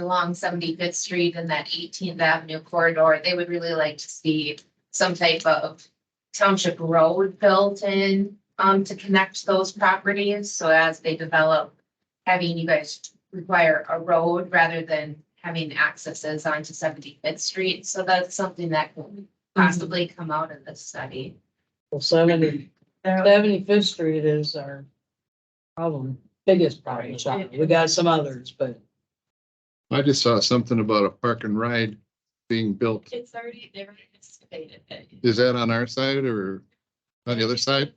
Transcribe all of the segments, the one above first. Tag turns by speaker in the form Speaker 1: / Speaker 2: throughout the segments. Speaker 1: along Seventy Fifth Street and that Eighteenth Avenue corridor, they would really like to see some type of township road built in, um, to connect those properties. So as they develop, having you guys require a road rather than having accesses onto Seventy Fifth Street. So that's something that could possibly
Speaker 2: Mhm.
Speaker 1: come out of this study.
Speaker 3: Well, seventy, seventy-fifth street is our problem, biggest problem. sorry. We got some others, but
Speaker 4: I just saw something about a park and ride being built.
Speaker 1: It's already, they've already excavated it.
Speaker 4: Is that on our side or on the other side?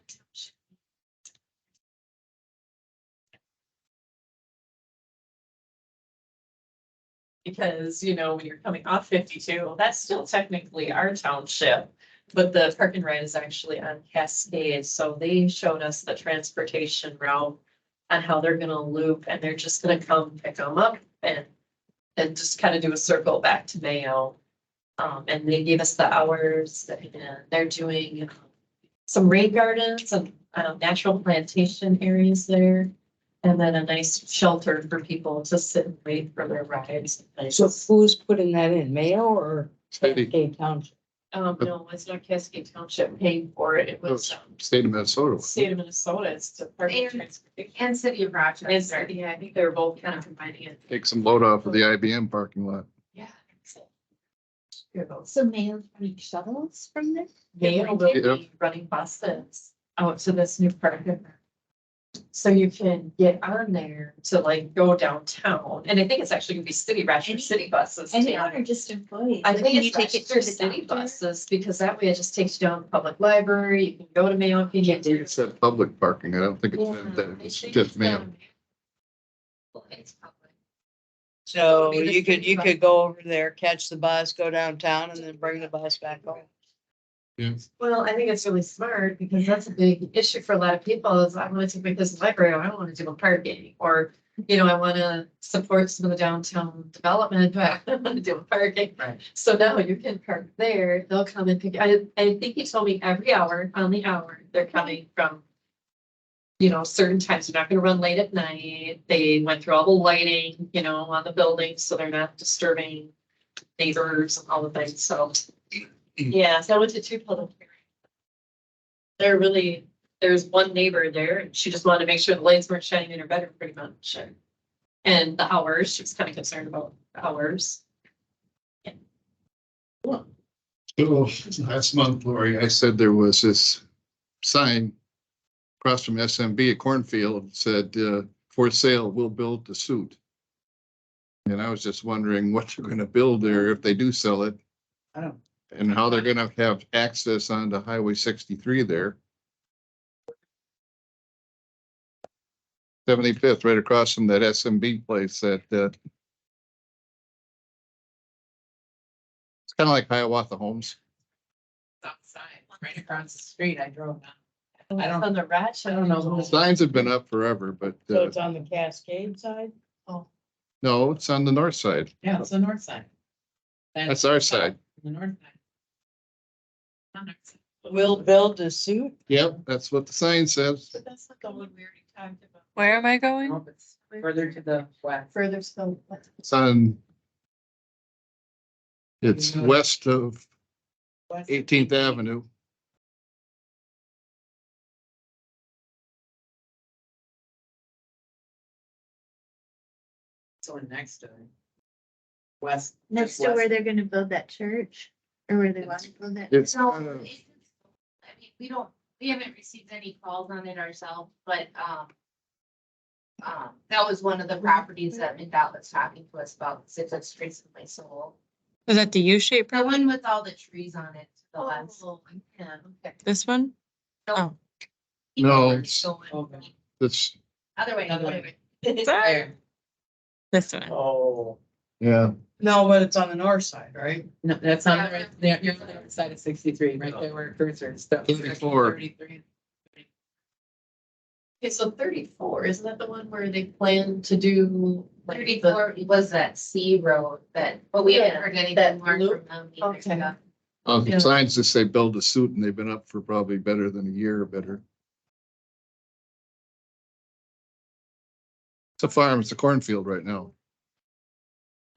Speaker 2: Because, you know, when you're coming off fifty-two, that's still technically our township. But the park and ride is actually on Cascade, so they showed us the transportation route. On how they're gonna loop and they're just gonna come pick them up and, and just kind of do a circle back to Mayo. Um, and they gave us the hours and they're doing um, some rain gardens and, um, natural plantation areas there. And then a nice shelter for people to sit and wait for their rides. and
Speaker 3: so
Speaker 2: things.
Speaker 3: who's putting that in, Mayo or
Speaker 4: City.
Speaker 3: Cascade Township?
Speaker 2: Um, no, it's not Cascade Township paying for it. It was um,
Speaker 4: State of Minnesota.
Speaker 2: state of Minnesota. It's Department of Transportation.
Speaker 1: And City of
Speaker 2: Is
Speaker 1: Rochester.
Speaker 2: there, yeah, I think they're both kind of combining it.
Speaker 4: Take some load off of the IBM parking lot.
Speaker 2: Yeah. so- Here goes.
Speaker 5: So mail running shuttles from there?
Speaker 2: They will be running buses out to this new park. So you can get on there to like go downtown. And I think it's actually gonna be city Rochester city buses. too.
Speaker 5: Anyone or just employees?
Speaker 2: I
Speaker 5: Like,
Speaker 2: think
Speaker 5: can
Speaker 2: it's
Speaker 5: take it
Speaker 2: Rochester
Speaker 5: to the
Speaker 2: city
Speaker 5: doctor?
Speaker 2: buses because that way it just takes you down to the public library. You can go to Mayo. if you
Speaker 4: I
Speaker 2: need
Speaker 4: think
Speaker 2: to.
Speaker 4: it said public parking. I don't think it
Speaker 2: Yeah,
Speaker 4: said that.
Speaker 2: I
Speaker 4: It's
Speaker 2: think
Speaker 4: just
Speaker 2: it's
Speaker 4: man.
Speaker 2: down-
Speaker 1: Well, it's public.
Speaker 3: So
Speaker 2: It'll be the
Speaker 3: you could,
Speaker 2: street
Speaker 3: you
Speaker 2: bus.
Speaker 3: could go over there, catch the bus, go downtown and then bring the bus back home.
Speaker 2: Well, I think it's really smart because that's a big issue for a lot of people is I want to take my business library, I don't want to do a parking or, you know, I want to support some of the downtown development, but I want to do a parking.
Speaker 3: Right.
Speaker 2: So now you can park there, they'll come and pick, I, I think you told me every hour, on the hour, they're coming from, you know, certain times, they're not going to run late at night. They went through all the lighting, you know, on the building, so they're not disturbing neighbors and all the things, so. Yeah, so I went to two public hearings. They're really, there's one neighbor there, and she just wanted to make sure the lights weren't shining in her bedroom pretty much. And the hours, she was kind of concerned about the hours.
Speaker 4: So last month, Lori, I said there was this sign across from SMB at Cornfield said, uh, for sale, we'll build the suit. And I was just wondering what they're gonna build there if they do sell it.
Speaker 3: I don't-
Speaker 4: And how they're gonna have access onto Highway sixty-three there. Seventy-fifth, right across from that SMB place that, uh, it's kind of like Hiawatha Homes.
Speaker 6: outside, right across the street. I drove down. I don't-
Speaker 2: On the ratchet. I don't know.
Speaker 4: Signs have been up forever, but,
Speaker 3: So
Speaker 4: uh,
Speaker 3: it's on the Cascade side?
Speaker 4: no, it's on the north side.
Speaker 6: Yeah, it's the north side.
Speaker 4: That's our side.
Speaker 6: The north side. On our side.
Speaker 3: We'll build a suit?
Speaker 4: Yep, that's what the sign says.
Speaker 2: But that's not the one we already talked about.
Speaker 7: Where am I going?
Speaker 6: Nope, it's Further to the west.
Speaker 2: Further still.
Speaker 4: It's on. It's west of
Speaker 6: West.
Speaker 4: Eighteenth Avenue.
Speaker 6: So we're next to. it. West.
Speaker 5: Next to
Speaker 6: west.
Speaker 5: where they're gonna build that church or where they want to build that.
Speaker 4: It's uh,
Speaker 1: So,
Speaker 4: kind of-
Speaker 1: it's- I mean, we don't, we haven't received any calls on it ourselves, but, um. Um, that was one of the properties that McDowell was talking to us about, since it's recently sold.
Speaker 7: Is that the U-shaped?
Speaker 1: The one with all the trees on it, the last.
Speaker 2: Oh, yeah, okay.
Speaker 7: This one? Oh.
Speaker 4: No,
Speaker 1: People are
Speaker 4: it's-
Speaker 1: going
Speaker 4: It's,
Speaker 1: Other way,
Speaker 6: Other
Speaker 1: other
Speaker 6: way.
Speaker 1: way.
Speaker 6: There.
Speaker 7: This one.
Speaker 6: Oh,
Speaker 4: yeah,
Speaker 3: No, but it's on the north side, right?
Speaker 6: no, that's on the right, there- you're on the right side of sixty-three, right there where cursor is. stuck.
Speaker 4: 34.
Speaker 6: Thirty-three.
Speaker 2: Okay, so thirty-four, isn't that the one where they plan to do? like, the-
Speaker 1: Thirty-four was that C road that, but we haven't
Speaker 2: Yeah,
Speaker 1: heard
Speaker 2: that
Speaker 1: anything more from
Speaker 2: loop.
Speaker 1: them either.
Speaker 2: Okay.
Speaker 1: so.
Speaker 4: uh, the
Speaker 2: Yeah.
Speaker 4: signs just say build a suit and they've been up for probably better than a year or better. It's a farm, it's a cornfield right now.